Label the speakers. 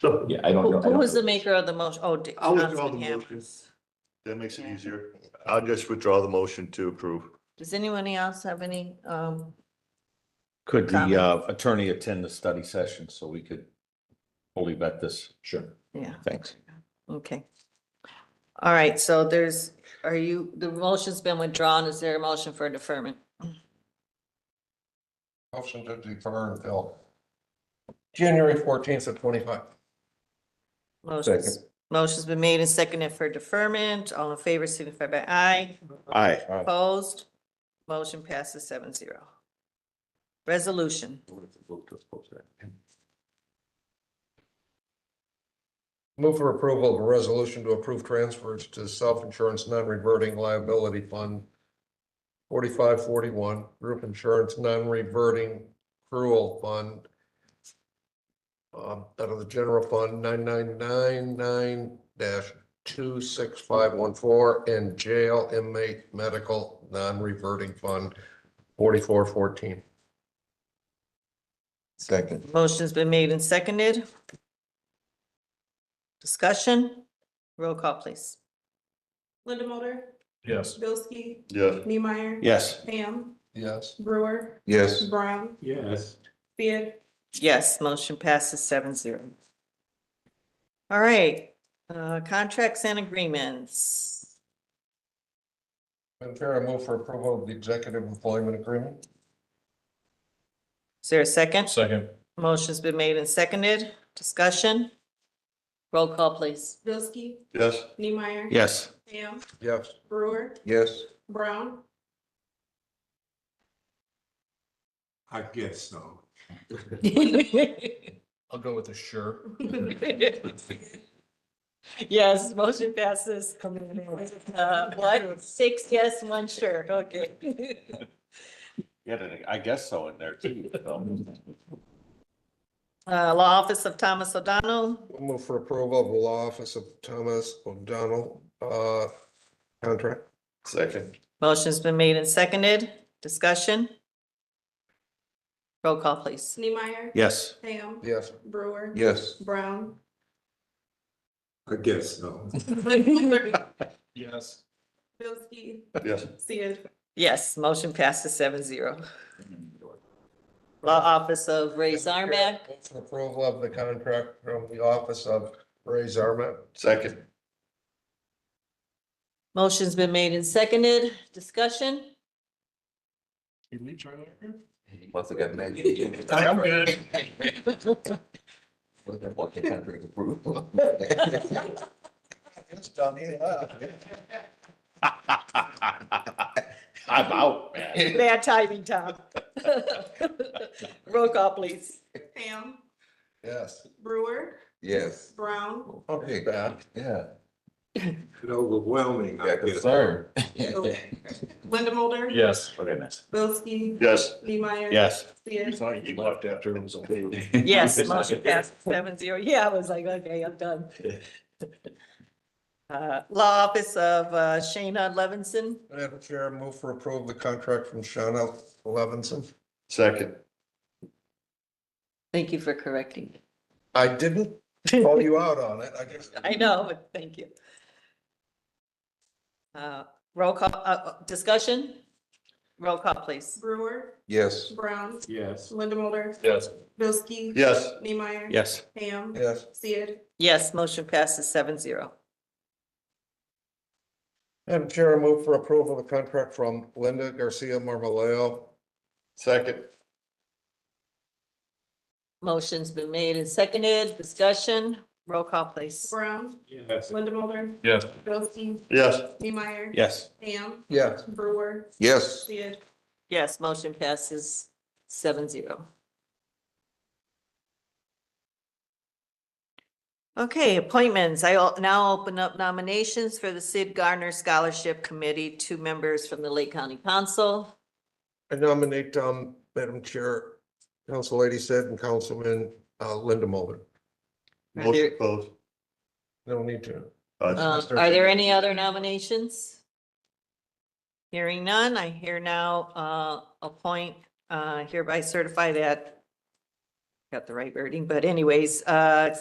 Speaker 1: So
Speaker 2: Yeah, I don't know.
Speaker 3: Who
Speaker 2: I
Speaker 3: who
Speaker 2: don't-
Speaker 3: was the maker of the motion? Oh, D-
Speaker 1: I'll withdraw the
Speaker 3: Councilman
Speaker 1: motion.
Speaker 3: Hammers.
Speaker 1: that makes it
Speaker 3: Yeah.
Speaker 1: easier. I'll just withdraw the motion to approve.
Speaker 3: Does anyone else have any, um,
Speaker 4: Could the uh,
Speaker 3: Comments?
Speaker 4: attorney attend the study session so we could fully vet this?
Speaker 2: Sure,
Speaker 3: yeah,
Speaker 2: thanks.
Speaker 3: okay. All right, so there's, are you, the motion's been withdrawn. Is there a motion for deferment?
Speaker 5: Motion to defer until January fourteenth of twenty-five.
Speaker 3: Motion's, motion's been made and seconded for deferment. All in favor signify by aye.
Speaker 2: Aye.
Speaker 3: Opposed? Motion passes seven zero. Resolution.
Speaker 5: Move for approval of a resolution to approve transfers to self-insurance non-reverting liability fund forty-five forty-one, group insurance non-reverting accrual fund um, out of the general fund nine-nine-nine-nine dash two-six-five-one-four and jail inmate medical non-reverting fund forty-four fourteen. Second.
Speaker 3: Motion's been made and seconded. Discussion? Roll call, please.
Speaker 6: Linda Mulder,
Speaker 4: Yes.
Speaker 6: Bilski,
Speaker 1: Yeah.
Speaker 6: Neemeyer.
Speaker 2: Yes.
Speaker 6: Ham,
Speaker 5: Yes.
Speaker 6: Brewer,
Speaker 5: Yes.
Speaker 6: Brown,
Speaker 1: Yes.
Speaker 6: Beard,
Speaker 3: Yes, motion passes seven zero. All right, uh, contracts and agreements.
Speaker 5: Madam Chair, I move for approval of the executive employment agreement.
Speaker 3: Is there a second?
Speaker 4: Second.
Speaker 3: Motion's been made and seconded. Discussion? Roll call, please.
Speaker 6: Bilski,
Speaker 1: Yes.
Speaker 6: Neemeyer.
Speaker 2: Yes.
Speaker 6: Ham,
Speaker 5: Yes.
Speaker 6: Brewer,
Speaker 5: Yes.
Speaker 6: Brown,
Speaker 1: I guess so.
Speaker 5: I'll go with a sure.
Speaker 3: Yes, motion passes. Uh, what? Six yes, one sure. Okay.
Speaker 4: Yeah, I guess so in there too. so.
Speaker 3: Uh, Law Office of Thomas O'Donnell.
Speaker 5: Move for approval of the law office of Thomas O'Donnell, uh, contract.
Speaker 1: Second.
Speaker 3: Motion's been made and seconded. Discussion? Roll call, please.
Speaker 6: Neemeyer.
Speaker 2: Yes.
Speaker 6: Ham,
Speaker 5: Yes.
Speaker 6: Brewer.
Speaker 5: Yes.
Speaker 6: Brown,
Speaker 1: I guess so.
Speaker 4: Yes.
Speaker 6: Bilski,
Speaker 1: Yes.
Speaker 6: Sid,
Speaker 3: Yes, motion passes seven zero. Law Office of Ray Zarmak.
Speaker 5: Move For approval of the contract from the office of Ray Zarmak.
Speaker 1: Second.
Speaker 3: Motion's been made and seconded. Discussion?
Speaker 2: Once again, maybe.
Speaker 4: I'm good.
Speaker 5: It's done, yeah.
Speaker 4: I'm out, man.
Speaker 3: Bad timing, Tom. Roll call, please.
Speaker 6: Ham,
Speaker 5: Yes.
Speaker 6: Brewer,
Speaker 5: Yes.
Speaker 6: Brown,
Speaker 5: Okay, that, yeah.
Speaker 1: Overwhelming, I guess.
Speaker 4: Sir.
Speaker 6: Oh. Linda Mulder.
Speaker 4: Yes.
Speaker 6: Bilski,
Speaker 1: Yes.
Speaker 6: Neemeyer.
Speaker 2: Yes.
Speaker 6: Sid,
Speaker 1: You left after it was over.
Speaker 3: Yes, motion passed seven zero. Yeah, I was like, okay, I'm done. Uh, Law Office of uh, Shayna Levinson.
Speaker 5: Madam Chair, move for approval of the contract from Shawna Levinson.
Speaker 1: Second.
Speaker 3: Thank you for correcting.
Speaker 5: I didn't call you out on it, I guess.
Speaker 3: I know, but thank you. Uh, Roll call, uh, uh, discussion? Roll call, please.
Speaker 6: Brewer,
Speaker 5: Yes.
Speaker 6: Brown,
Speaker 1: Yes.
Speaker 6: Linda Mulder,
Speaker 4: Yes.
Speaker 6: Bilski.
Speaker 1: Yes.
Speaker 6: Neemeyer.
Speaker 2: Yes.
Speaker 6: Ham,
Speaker 5: Yes.
Speaker 6: Sid,
Speaker 3: Yes, motion passes seven zero.
Speaker 5: Madam Chair, I move for approval of the contract from Linda Garcia Marmaleo.
Speaker 1: Second.
Speaker 3: Motion's been made and seconded. Discussion? Roll call, please.
Speaker 6: Brown,
Speaker 1: Yes.
Speaker 6: Linda Mulder,
Speaker 4: Yes.
Speaker 6: Bilski,
Speaker 1: Yes.
Speaker 6: Neemeyer.
Speaker 2: Yes.
Speaker 6: Ham,
Speaker 5: Yes.
Speaker 6: Brewer,
Speaker 5: Yes.
Speaker 6: Sid,
Speaker 3: Yes, motion passes seven zero. Okay, appointments. I will now open up nominations for the Sid Garner Scholarship Committee, two members from the Lake County Council.
Speaker 5: I nominate, um, Madam Chair, Council Lady Sid and Councilman, uh, Linda Mulder.
Speaker 3: Are
Speaker 1: Motion
Speaker 3: there-
Speaker 1: closed.
Speaker 5: No need to.
Speaker 1: Uh,
Speaker 3: uh, Are there any other nominations? Hearing none, I hear now uh, appoint, uh, hereby certify that, got the right wording, but anyways, uh,